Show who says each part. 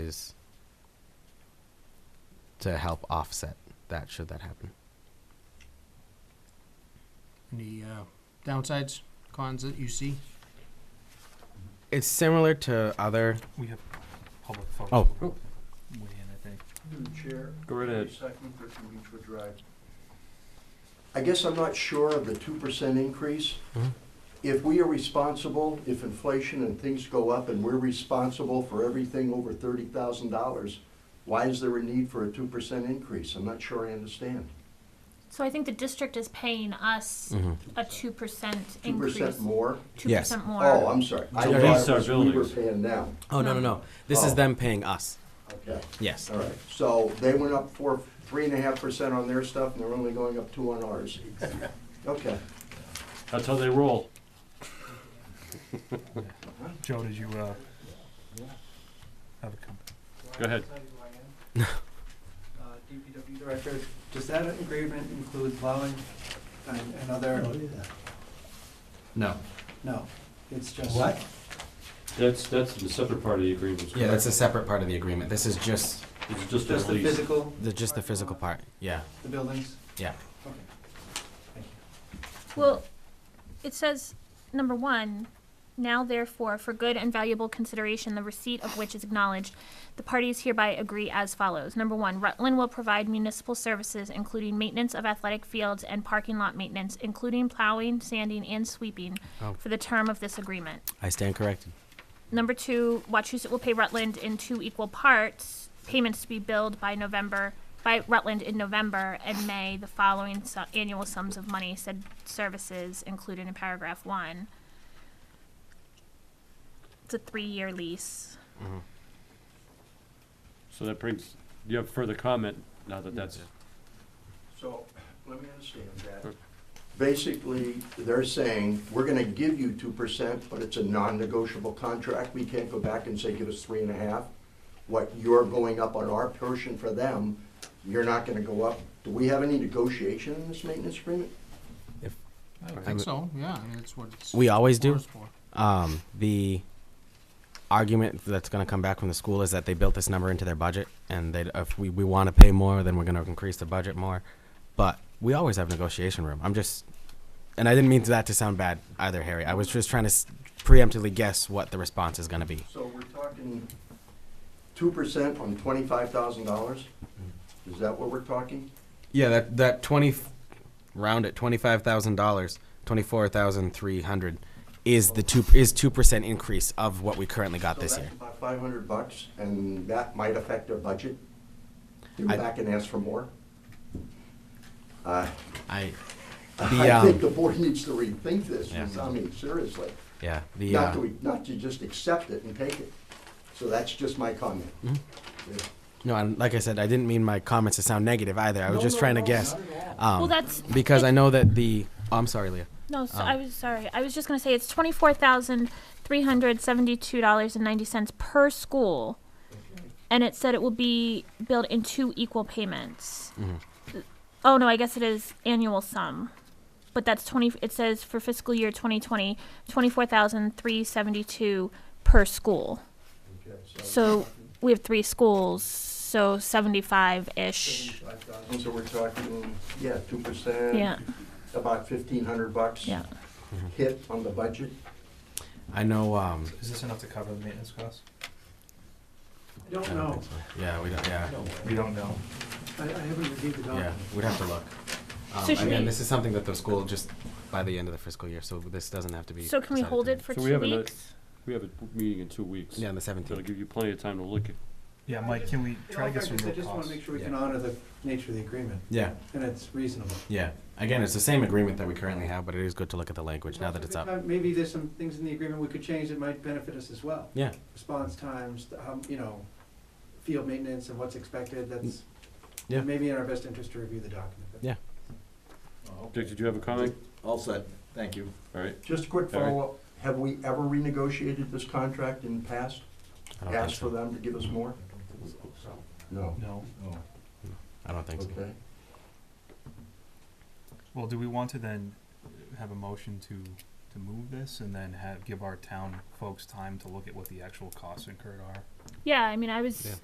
Speaker 1: is to help offset that should that happen.
Speaker 2: Any uh, downsides, cons that you see?
Speaker 1: It's similar to other.
Speaker 3: We have public folks.
Speaker 1: Oh.
Speaker 3: who weigh in, I think.
Speaker 4: Madam Chair.
Speaker 5: Go right ahead.
Speaker 4: Dave Seckman, 13 Beechwood Drive. I guess I'm not sure of the two percent increase.
Speaker 1: Mhm.
Speaker 4: If we are responsible, if inflation and things go up and we're responsible for everything over thirty thousand dollars, why is there a need for a two percent increase? I'm not sure I understand.
Speaker 6: So I think the district is paying us
Speaker 1: Mm-hmm.
Speaker 6: a two percent
Speaker 4: Two
Speaker 6: increase.
Speaker 4: percent more?
Speaker 6: Two
Speaker 1: Yes.
Speaker 6: percent more.
Speaker 4: Oh, I'm sorry. I
Speaker 1: To
Speaker 4: thought
Speaker 1: lease
Speaker 4: it
Speaker 5: our
Speaker 4: was we were
Speaker 5: buildings.
Speaker 4: paying now.
Speaker 1: Oh no no no! This is
Speaker 4: Oh.
Speaker 1: them paying us.
Speaker 4: Okay.
Speaker 1: Yes.
Speaker 4: All right, so they went up four, three and a half percent on their stuff, and they're only going up two on ours. Okay.
Speaker 5: That's how they roll.
Speaker 3: Joe, did you, uh, have a comment?
Speaker 5: Go ahead.
Speaker 7: Uh, DPW director, does that agreement include plowing and and other?
Speaker 1: No.
Speaker 7: No, it's just.
Speaker 5: That's, that's the separate part of the agreement.
Speaker 1: Yeah, that's a separate part of the agreement. This is just
Speaker 5: It's just a
Speaker 7: Just the
Speaker 5: release.
Speaker 7: physical,
Speaker 1: the just the physical part. Yeah.
Speaker 7: the buildings?
Speaker 1: Yeah.
Speaker 7: Okay. Thank you.
Speaker 6: Well, it says, number one, now therefore, for good and valuable consideration, the receipt of which is acknowledged, the parties hereby agree as follows. Number one, Rutland will provide municipal services, including maintenance of athletic fields and parking lot maintenance, including plowing, sanding, and sweeping,
Speaker 1: Oh.
Speaker 6: for the term of this agreement.
Speaker 1: I stand corrected.
Speaker 6: Number two, Wachusett will pay Rutland in two equal parts, payments to be billed by November, by Rutland in November and May, the following su- annual sums of money said services included in paragraph one. It's a three-year lease.
Speaker 5: So that brings, you have further comment now that that's,
Speaker 4: So, let me understand that. Basically, they're saying, we're gonna give you two percent, but it's a non-negotiable contract. We can't go back and say, give us three and a half. What you're going up on our portion for them, you're not gonna go up. Do we have any negotiation in this maintenance agreement?
Speaker 2: I
Speaker 1: I'm-
Speaker 2: think so, yeah, I mean, that's what it's.
Speaker 1: We always do.
Speaker 2: it's for.
Speaker 1: Um, the argument that's going to come back from the school is that they built this number into their budget, and they if we, we want to pay more, then we're going to increase the budget more. But we always have negotiation room. I'm just, and I didn't mean that to sound bad either, Harry. I was just trying to s- preemptively guess what the response is going to be.
Speaker 4: So we're talking two percent on twenty-five thousand dollars? Is that what we're talking?
Speaker 1: Yeah, that that twenty, round at twenty five thousand dollars, twenty four thousand three hundred, is the two is two percent increase of what we currently got this
Speaker 4: So
Speaker 1: year.
Speaker 4: that's about five hundred bucks, and that might affect our budget? You
Speaker 1: I-
Speaker 4: go back and ask for more? Uh,
Speaker 1: I, the
Speaker 4: I think the
Speaker 1: um,
Speaker 4: board needs to rethink this,
Speaker 1: Yeah.
Speaker 4: I mean, seriously.
Speaker 1: yeah, the
Speaker 4: Not
Speaker 1: uh,
Speaker 4: to, not to just accept it and take it. So that's just my comment.
Speaker 1: Mm-hmm.
Speaker 4: Yeah.
Speaker 1: no, and like I said, I didn't mean my comments to sound negative either. I was
Speaker 4: No,
Speaker 1: just
Speaker 4: no,
Speaker 1: trying to
Speaker 4: no,
Speaker 1: guess,
Speaker 4: not at all.
Speaker 1: um,
Speaker 6: Well, that's,
Speaker 1: because I know that the. Oh, I'm sorry, Leah.
Speaker 6: no, so
Speaker 1: Um,
Speaker 6: I was, sorry, I was just gonna say, it's twenty-four thousand, three hundred seventy-two dollars and ninety cents per school. And it said it will be billed in two equal payments.
Speaker 1: Mm-hmm.
Speaker 6: Oh, no, I guess it is annual sum. But that's twenty, it says for fiscal year 2020, 24,372 per school.
Speaker 4: Okay,
Speaker 6: So we have three schools, so seventy-five-ish,
Speaker 4: $75,000, So we're talking, yeah, two percent.
Speaker 6: yeah,
Speaker 4: About fifteen hundred bucks.
Speaker 6: yeah.
Speaker 4: Hit on the budget.
Speaker 1: I know. Um,
Speaker 3: Is this enough to cover the maintenance costs?
Speaker 7: I don't
Speaker 1: I don't
Speaker 7: know.
Speaker 1: think so. Yeah, we don't. Yeah,
Speaker 3: We don't know.
Speaker 7: I I haven't reviewed the
Speaker 1: yeah,
Speaker 7: document.
Speaker 1: we'd have to look. Um,
Speaker 6: So should
Speaker 1: again,
Speaker 6: we-
Speaker 1: this is something that the school just by the end of the fiscal year, so this doesn't have to be.
Speaker 6: So can we
Speaker 1: decided
Speaker 6: hold
Speaker 1: tonight.
Speaker 6: it for
Speaker 5: So we
Speaker 6: two
Speaker 5: have a note-
Speaker 6: weeks?
Speaker 5: we have a meeting in two weeks.
Speaker 1: Yeah, on the seventeenth.
Speaker 5: That'll give you plenty of time to look at.
Speaker 3: Yeah, Mike, can we try to
Speaker 7: In all
Speaker 3: get some
Speaker 7: fairness, I
Speaker 3: real
Speaker 7: just want to
Speaker 3: costs?
Speaker 7: make sure we
Speaker 1: Yeah.
Speaker 7: can honor the nature of the agreement,
Speaker 1: Yeah,
Speaker 7: and it's reasonable.
Speaker 1: yeah. Again, it's the same agreement that we currently have, but it is good to look at the language now that it's up.
Speaker 7: Maybe there's some things in the agreement we could change that might benefit us as well.
Speaker 1: Yeah,
Speaker 7: response times, the- how, you know, field maintenance and what's expected, that's
Speaker 1: Yeah.
Speaker 7: maybe in our best interest to review the document.
Speaker 1: Yeah.
Speaker 5: Dick, did you have a comment?
Speaker 4: All set, thank you.
Speaker 5: All right.
Speaker 4: Just a quick
Speaker 5: All right.
Speaker 4: follow-up, have we ever renegotiated this contract in the past?
Speaker 1: I don't think
Speaker 4: Asked for
Speaker 1: so.
Speaker 4: them to give us more? No.
Speaker 3: No.
Speaker 1: I don't think so.
Speaker 4: Okay.
Speaker 3: Well, do we want to then have a motion to, to move this and then have, give our town folks time to look at what the actual costs incurred are?
Speaker 6: Yeah, I mean, I was,
Speaker 1: Yeah.